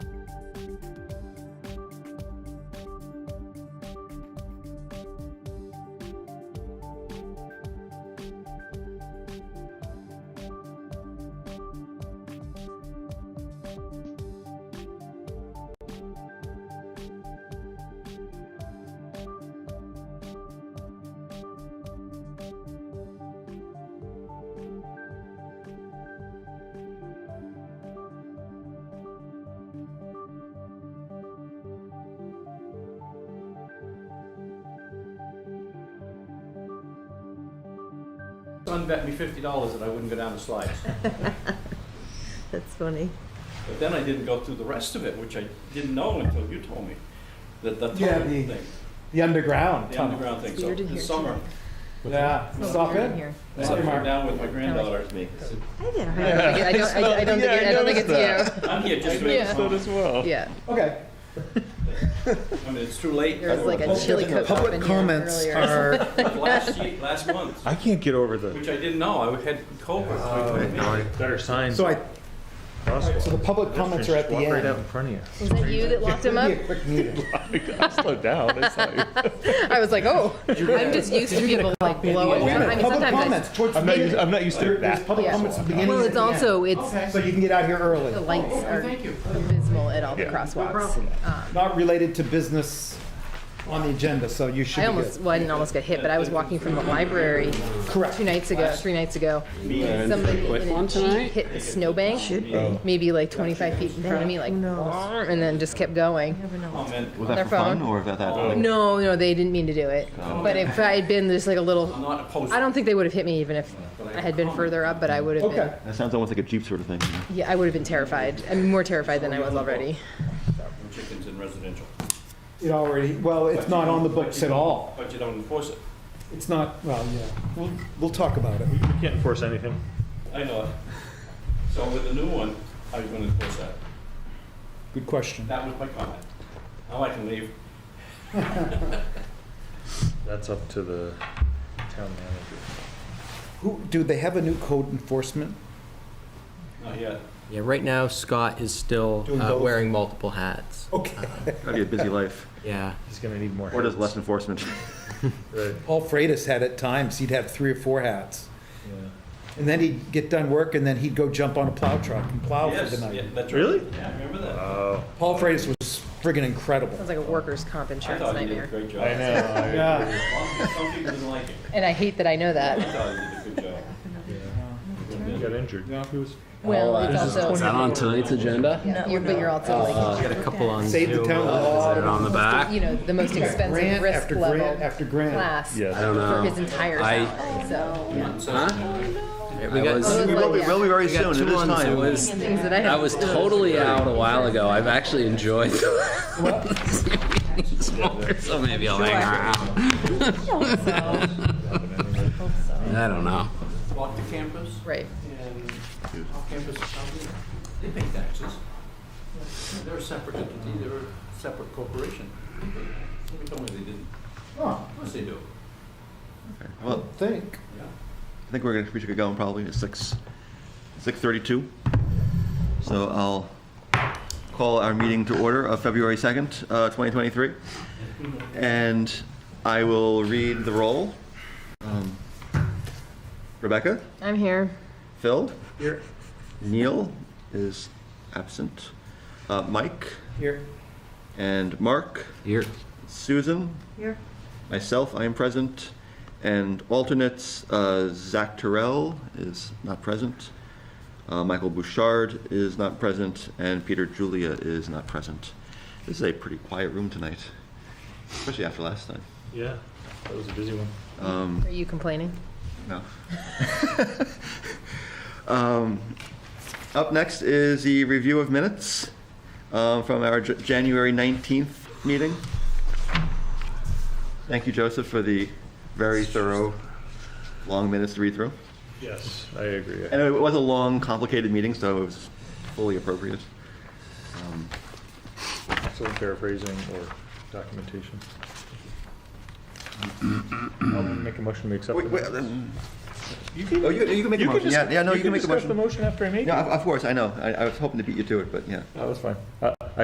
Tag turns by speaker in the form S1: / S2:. S1: son bet me fifty dollars that I wouldn't go down the slides.
S2: That's funny.
S1: But then I didn't go through the rest of it, which I didn't know until you told me, that the
S3: Yeah,
S1: tunnel
S3: the-
S1: thing,
S3: The underground
S1: the
S3: tunnel.
S1: underground thing,
S2: It's
S1: so
S2: weird in
S1: this
S2: here,
S1: summer,
S2: too.
S3: Yeah,
S2: It's
S3: it's all
S2: weird in
S3: good.
S2: here.
S1: I
S3: Sorry,
S1: came
S3: Mark.
S1: down with my granddaughter with me.
S2: I did. I
S3: Yeah.
S2: don't think it- I don't, I- I don't think, it- I don't think it's
S1: I'm here just to make
S2: Yeah.
S1: a comment.
S2: you.
S4: well.
S2: Yeah.
S3: Okay.
S1: I mean, it's too late.
S2: There was like a
S1: Most of
S2: chili
S1: them
S2: cook
S1: were
S2: off in here earlier.
S1: public Last year, last month,
S4: I can't get over the
S1: which I didn't know, I had COVID between me.
S4: better signs.
S3: So I,
S4: crosswalk.
S3: so the public comments are at the
S4: Walk Right out in
S3: end.
S4: front of you.
S2: Was that you that locked him
S3: It'll
S2: up?
S3: be a quick meeting.
S4: I slowed down. I saw you.
S2: I was like, oh, I'm just used to people like blowing.
S3: Wait a
S2: I mean,
S3: minute, public
S2: sometimes I
S3: comments towards the
S4: I'm not, used,
S3: beginning.
S4: I'm not used to
S3: There's
S4: that.
S3: public
S2: Yeah.
S3: comments at the beginning.
S2: Well,
S3: and
S2: it's
S3: at the end.
S2: also, it's,
S3: So you can get out here early.
S2: the lights are
S1: Thank you.
S2: abysmal at all the
S4: Yeah.
S2: crosswalks. Um,
S3: Not related to business on the agenda, so you should
S2: I
S3: be
S2: almost,
S3: good.
S2: well, I didn't almost get hit, but I was walking from the library two nights ago, three nights ago. Somebody in a Jeep hit the snowbank, maybe like 25 feet in front of me, like, and then just kept going.
S1: Comment.
S5: Was
S2: Their
S5: that for fun
S2: phone.
S5: or was that that? like-
S2: No, no, they didn't mean to do it. But if I had been just like a
S1: I'm
S2: little,
S1: not opposed.
S2: I don't think they would have hit me even if I had been further up, but I would have
S3: Okay.
S2: been,
S5: That sounds almost like a Jeep sort of thing. you know?
S2: yeah, I would have been terrified. I'm more terrified than I was already.
S1: Chickens in residential,
S3: It already, well, it's not on the books at all.
S1: but you don't enforce it.
S3: It's not, well, yeah, we'll, we'll talk about it.
S4: You can't enforce anything.
S1: I know it. So with the new one, how are you gonna enforce that?
S3: Good question.
S1: That was my comment. Now I can leave.
S4: That's up to the town manager.
S3: Who, do they have a new code enforcement?
S1: Not yet.
S6: Yeah, right now Scott is still
S3: Doing
S6: uh,
S3: both.
S6: wearing multiple hats. Uh,
S3: Okay.
S5: Gotta be a busy life.
S6: Yeah.
S4: He's gonna need more.
S5: Or does less enforcement.
S4: Right.
S3: Paul Freitas had at times, he'd have three or four hats.
S4: Yeah.
S3: And then he'd get done work and then he'd go jump on a plow truck and plow for
S1: Yes,
S3: the
S1: yeah,
S3: night. Uh,
S1: that's right.
S4: Really?
S1: Yeah, I remember that.
S4: Oh,
S3: Paul Freitas was friggin' incredible.
S2: Sounds like a workers' comp
S1: I
S2: insurance
S1: thought you did a
S2: nightmare.
S1: great job.
S4: I know.
S3: Yeah.
S1: Some people didn't like it.
S2: And I hate that I know
S1: I
S2: that.
S1: thought you did a good job.
S4: He got injured.
S3: Yeah.
S4: He was
S2: Well, it's also,
S6: Is that on tonight's agenda?
S2: yeah, you're- but you're also
S6: Uh,
S2: like,
S6: got a couple on
S3: Save the
S6: Zoom.
S3: town.
S6: uh, Is it on the
S2: you
S6: back?
S2: know, the most expensive
S3: Grant
S2: risk
S3: after grant
S2: level
S3: after grant.
S2: class
S4: Yes.
S6: I don't
S2: for his
S6: know.
S2: entire
S6: I-
S2: salary, so, yeah.
S6: Huh? Yeah, We
S2: I was
S6: got,
S5: We
S2: like,
S5: will be,
S2: yeah.
S5: will be very
S6: we got
S5: soon. It
S6: two
S5: is
S6: on Zoom. It
S5: time.
S6: was-
S2: Things that I
S6: I
S2: have.
S6: was totally out a while ago. I've actually enjoyed So maybe I'll hang around. I don't know.
S1: Walk to campus
S2: Right.
S1: and off campus or something. They pay taxes. They're a separate entity, they're a separate corporation. Somebody told me they didn't.
S3: Oh,
S1: Of course they do.
S5: Well,
S3: think.
S1: Yeah.
S5: I think we're gonna, we should get going probably at six, six thirty-two. So I'll call our meeting to order of February second, uh, twenty twenty-three. And I will read the roll. Um, Rebecca,
S2: I'm here.
S5: Phil? Here. Neil is absent. Uh, Mike
S3: Here.
S5: and Mark?
S6: Here.
S5: Susan? Here. Myself, I am present. And alternates, uh, Zach Terrell is not present. Uh, Michael Bouchard is not present. And Peter Julia is not present. This is a pretty quiet room tonight, especially after last time.
S4: Yeah. That was a busy one.
S2: Are you complaining?
S5: No. um, up next is the review of minutes uh, from our J- January 19th meeting. Thank you, Joseph, for the very thorough, long minutes to read through.
S4: Yes, I agree.
S5: And it was a long, complicated meeting, so it was fully appropriate. Um,
S4: So paraphrasing or documentation. I'll make a motion to accept. the
S5: wait, wait,
S4: minutes.
S5: um,
S4: You can,
S5: oh, you, you can make a motion.
S4: just-
S5: yeah, yeah, no, you, can, make a
S4: discuss
S5: motion.
S4: the motion after I make
S5: Yeah,
S4: it.
S5: of, of course, I know. I, I was hoping to beat you to it, but yeah.
S4: That was fine. Uh, I,